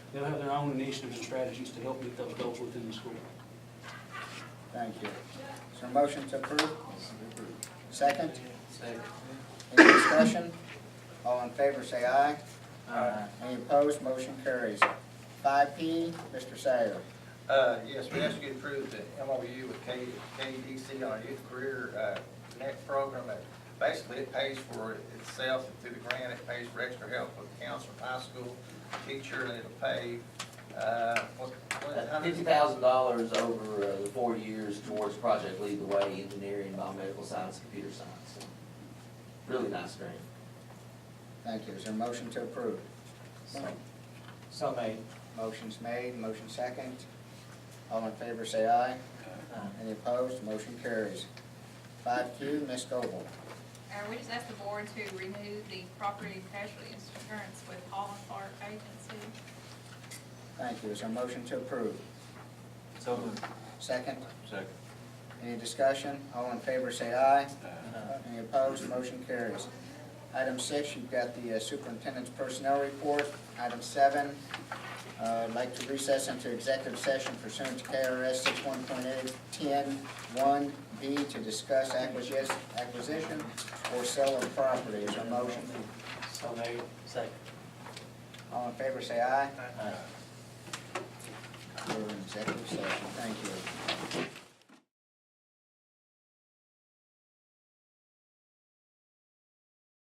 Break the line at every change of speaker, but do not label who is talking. They'll have their own initiatives and strategies to help meet those goals within the school.
Thank you. Is there a motion to approve? Second?
Second.
Any discussion? All in favor, say aye.
Aye.
Any opposed, motion carries. Five P, Mr. Sayer.
Uh, yes, we ask you to approve the MOU with K, KDC on our youth career, uh, connect program. Uh, Basically, it pays for itself and through the grant, it pays for extra help with counselor, high school teacher, and it'll pay, uh, what, what, how many?
Fifty thousand dollars over uh, the four years towards Project Lead the Way, engineering, biomedical science, computer science. Really nice grant.
Thank you. Is there a motion to approve?
So made.
Motion's made, motion second. All in favor, say aye. Any opposed, motion carries. Five Q, Ms. Goble.
Uh, we just asked the board to remove the property and casualty insurance with Hall and Clark Agency.
Thank you. Is there a motion to approve?
So
Second?
Second.
Any discussion? All in favor, say aye.
Aye.
Any opposed, motion carries. Item six, you've got the uh, superintendent's personnel report. Item seven, uh, I'd like to recess into executive session pursuant to KRS 61.810-1B to discuss acquisition acquisition or sale of property. Is there a motion?
So made. Second.
All in favor, say aye.
Aye.
We're in executive session. Thank you.